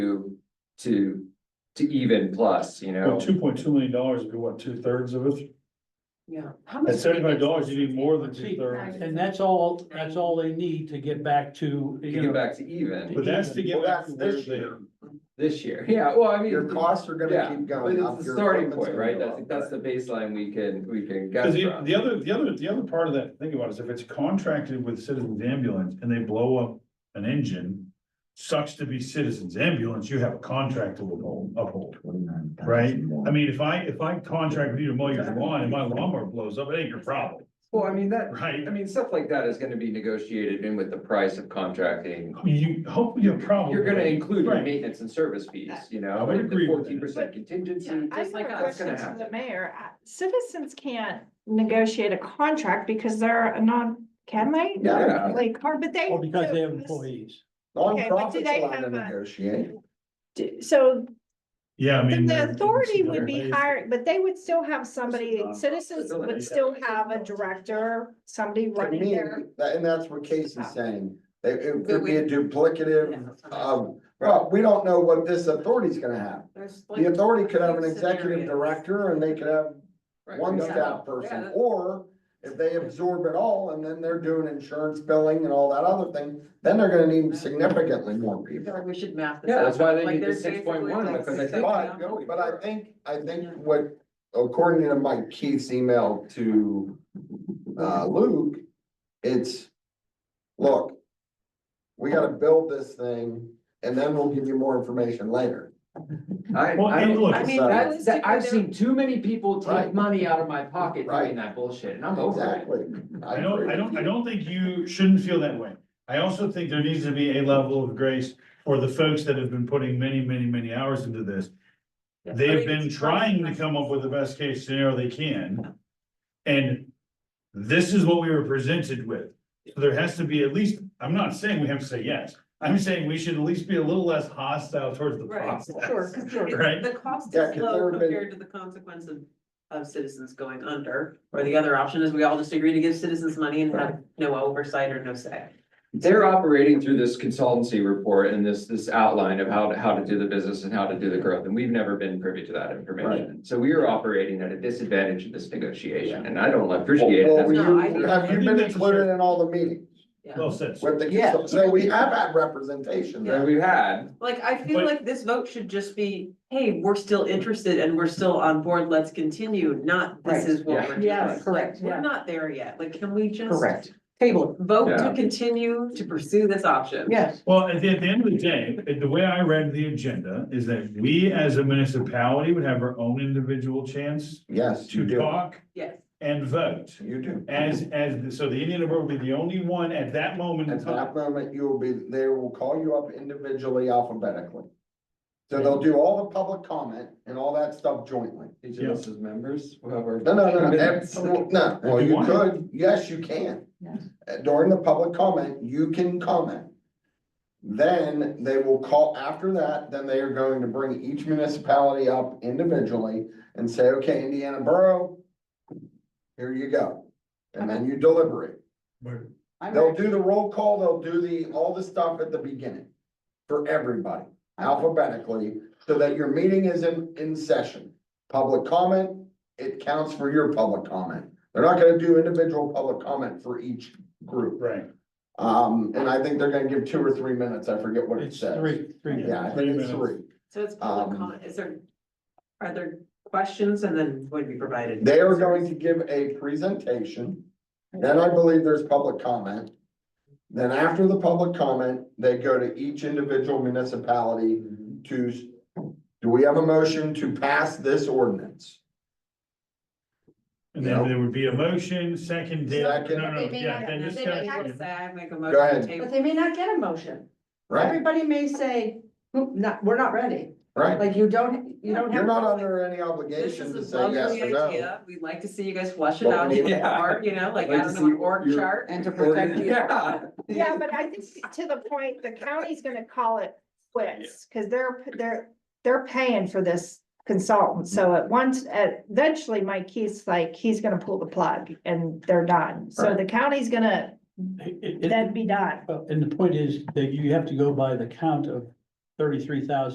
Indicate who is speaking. Speaker 1: to, to, to even plus, you know?
Speaker 2: Well, two point two million dollars would be what, two thirds of it?
Speaker 3: Yeah.
Speaker 2: At seventy-five dollars, you need more than two thirds.
Speaker 4: And that's all, that's all they need to get back to,
Speaker 1: To
Speaker 4: you
Speaker 1: get
Speaker 4: know,
Speaker 1: back to even
Speaker 2: But that's to get
Speaker 5: Well,
Speaker 2: back to
Speaker 5: that's
Speaker 2: where
Speaker 5: this
Speaker 2: they,
Speaker 5: year.
Speaker 1: this year, yeah, well, I mean.
Speaker 5: Your costs are
Speaker 1: yeah,
Speaker 5: gonna keep
Speaker 1: But
Speaker 5: going up.
Speaker 1: it's the
Speaker 5: your
Speaker 1: starting
Speaker 5: equipment's
Speaker 1: point,
Speaker 5: gonna
Speaker 1: right?
Speaker 5: go
Speaker 1: That's, that's
Speaker 5: up, right.
Speaker 1: the baseline we can, we can
Speaker 2: cause
Speaker 1: guess
Speaker 2: the,
Speaker 1: from.
Speaker 2: the other, the other, the other part of that, think about it, is if it's contracted with Citizens Ambulance and they blow up an engine. Sucks to be Citizens Ambulance, you have a contract to uphold, uphold. Right? I mean, if I, if I contract with you to mow your lawn and my lawnmower blows up, it ain't your problem,
Speaker 1: Well, I mean, that,
Speaker 2: right?
Speaker 1: I mean, stuff like that is gonna be negotiated in with the price of contracting.
Speaker 2: You, hopefully your problem.
Speaker 1: You're gonna include your
Speaker 2: Oh, Right.
Speaker 1: maintenance and service fees, you
Speaker 2: I
Speaker 1: know,
Speaker 2: would
Speaker 1: and the
Speaker 2: agree with
Speaker 1: fourteen percent contingency,
Speaker 6: I
Speaker 1: just
Speaker 6: have
Speaker 1: like
Speaker 6: a
Speaker 1: that's
Speaker 6: question
Speaker 1: gonna
Speaker 6: to
Speaker 1: happen.
Speaker 6: the mayor. Uh, Citizens can't negotiate a contract because they're a non, can they?
Speaker 5: Yeah.
Speaker 6: Like, or- but they.
Speaker 4: or oh, because they have employees.
Speaker 6: Okay, but do
Speaker 5: Nonprofits
Speaker 6: they
Speaker 5: allow them to
Speaker 6: have a-
Speaker 5: negotiate.
Speaker 6: Do- So
Speaker 2: Yeah, I mean.
Speaker 6: then the
Speaker 2: they're-
Speaker 6: authority would be
Speaker 2: everybody's-
Speaker 6: hired, but they would still have somebody,
Speaker 1: nonprofit,
Speaker 6: citizens
Speaker 1: isn't it?
Speaker 6: would still have a director, somebody
Speaker 5: To
Speaker 6: running
Speaker 5: me,
Speaker 6: there.
Speaker 5: that, and that's what Casey's saying. It, it could be a
Speaker 3: Yeah.
Speaker 5: duplicative of, well, we don't know what this authority's gonna have.
Speaker 3: There's like-
Speaker 5: The authority could have an
Speaker 3: two
Speaker 5: executive
Speaker 3: scenarios.
Speaker 5: director and they could have
Speaker 1: Right, we
Speaker 5: one
Speaker 1: don't-
Speaker 5: staff person, or if they absorb it all and then they're doing insurance billing and all that other thing, then they're gonna need significantly more
Speaker 3: I feel
Speaker 5: people.
Speaker 3: like we should map this.
Speaker 1: Yeah,
Speaker 3: out.
Speaker 1: that's why they
Speaker 3: Like,
Speaker 1: need the
Speaker 3: there's
Speaker 1: 6.1
Speaker 3: basically
Speaker 1: because I
Speaker 3: like
Speaker 1: think-
Speaker 5: But, no, but I think, I think what, according to Mike Keith's email to, uh, Luke, it's, look, we gotta build this thing, and then we'll give you more information later.
Speaker 1: I,
Speaker 2: Well,
Speaker 1: I,
Speaker 2: and look, uh,
Speaker 1: I mean,
Speaker 5: so-
Speaker 1: that's, that, I've seen too many people take
Speaker 5: Right.
Speaker 1: money out of my pocket doing
Speaker 5: Right.
Speaker 1: that bullshit, and I'm over it.
Speaker 5: Exactly.
Speaker 2: I don't,
Speaker 5: agree
Speaker 2: I
Speaker 5: with
Speaker 2: don't,
Speaker 5: you.
Speaker 2: I don't think you shouldn't feel that way. I also think there needs to be a level of grace for the folks that have been putting many, many, many hours into this. They have been trying to come up with the best case scenario they can. And this is what we were presented with. So There has to be at least, I'm not saying we have to say yes. I'm saying we should at least be a little less hostile towards the
Speaker 3: Right,
Speaker 2: process.
Speaker 3: sure, because the,
Speaker 2: Right.
Speaker 3: the cost
Speaker 5: Yeah,
Speaker 3: is
Speaker 5: 'cause
Speaker 3: low
Speaker 5: there have been-
Speaker 3: compared to the consequence of, of citizens going under. Or the other option is we all just agree to give citizens money and have no oversight or no say.
Speaker 1: They're operating through this consultancy report and this, this outline of how to, how to do the business and how to do the growth, and we've never been privy to that information. So we are operating at a disadvantage in this negotiation, and I don't appreciate
Speaker 5: Well, were
Speaker 1: it.
Speaker 3: No, I think-
Speaker 5: you- Have you been included in all the meetings?
Speaker 3: Yeah,
Speaker 2: Well said.
Speaker 5: With the,
Speaker 3: Yeah.
Speaker 5: so we have had representation
Speaker 1: That
Speaker 5: there.
Speaker 1: we've had,
Speaker 3: like, I feel
Speaker 2: But-
Speaker 3: like this vote should just be, hey, we're still interested and we're still on board, let's continue, not this
Speaker 7: Right.
Speaker 3: is what
Speaker 1: Yeah.
Speaker 3: we're doing.
Speaker 7: Yes,
Speaker 3: Like,
Speaker 7: correct, yeah.
Speaker 3: We're not there yet, like, can we just?
Speaker 7: Correct. Table,
Speaker 3: Vote
Speaker 1: Yeah.
Speaker 3: to continue to pursue this option.
Speaker 7: yes.
Speaker 2: Well, at the, at the end of the day, eh, the way I read the agenda is that we as a municipality would have our own individual chance
Speaker 5: Yes, you
Speaker 2: to
Speaker 5: do.
Speaker 2: talk
Speaker 3: Yes.
Speaker 2: and vote.
Speaker 5: You do.
Speaker 2: As, as, so the Indian River would be the only one at that moment in
Speaker 5: At that
Speaker 2: time.
Speaker 5: moment, you will be, they will call you up individually alphabetically. So they'll do all the public comment and all that stuff jointly.
Speaker 1: each of us as members, whoever.
Speaker 5: No, no, no, no,
Speaker 1: Minutes.
Speaker 5: that's- no, well,
Speaker 2: If you
Speaker 5: you
Speaker 2: want.
Speaker 5: could, yes, you can.
Speaker 7: Yes.
Speaker 5: Uh, During the public comment, you can comment. Then they will call, after that, then they are going to bring each municipality up individually and say, okay, Indiana Borough, here you go. And then you deliberate.
Speaker 2: But-
Speaker 7: I'm
Speaker 5: They'll
Speaker 7: ready.
Speaker 5: do the roll call, they'll do the, all the stuff at the beginning for everybody alphabetically, so that your meeting is in, in session. Public comment, it counts for your public comment. They're not gonna do individual public comment for each group.
Speaker 2: Right.
Speaker 5: Um, and I think they're gonna give two or three minutes, I forget what it
Speaker 4: It's
Speaker 5: says.
Speaker 4: three, three.
Speaker 5: Yeah, I think it's
Speaker 2: Three minutes.
Speaker 5: three.
Speaker 3: So it's public
Speaker 5: Um,
Speaker 3: comment, is there, are there questions and then would be provided?
Speaker 5: They are going to give a presentation, then I believe there's public comment. Then after the public comment, they go to each individual municipality to, s- do we have a motion to pass this ordinance?
Speaker 2: And then there would be a motion, second, then,
Speaker 5: Second.
Speaker 2: no, no,
Speaker 7: They may
Speaker 2: yeah,
Speaker 7: not-
Speaker 2: then
Speaker 7: they may
Speaker 2: discussion.
Speaker 3: Say, I make a
Speaker 5: Go
Speaker 3: motion
Speaker 5: ahead.
Speaker 3: to
Speaker 7: But
Speaker 3: table.
Speaker 7: they may not get a motion.
Speaker 5: Right,
Speaker 7: Everybody may say, "Hmm, not, we're not ready.
Speaker 5: right.
Speaker 7: Like you don't, you don't have.
Speaker 5: You're not under any
Speaker 3: This
Speaker 5: obligation to
Speaker 3: is a
Speaker 5: say yes
Speaker 3: lovely
Speaker 5: or no.
Speaker 3: idea. We'd like to see you guys flush it
Speaker 5: Well,
Speaker 3: out,
Speaker 5: we-
Speaker 1: Yeah.
Speaker 3: or, you know, like,
Speaker 1: Like to
Speaker 3: I don't know, an
Speaker 1: see
Speaker 3: org
Speaker 1: your-
Speaker 3: chart.
Speaker 7: And to protect you.
Speaker 1: Yeah.
Speaker 6: Yeah, but I think to the point, the county's gonna call it quits, cause they're, they're, they're paying for this consultant, so at once, at- eventually Mike Keith's like, he's gonna pull the plug and they're done, so the county's gonna
Speaker 4: It- it-
Speaker 6: then be done.
Speaker 4: And the point is that you have to go by the count of thirty-three thousand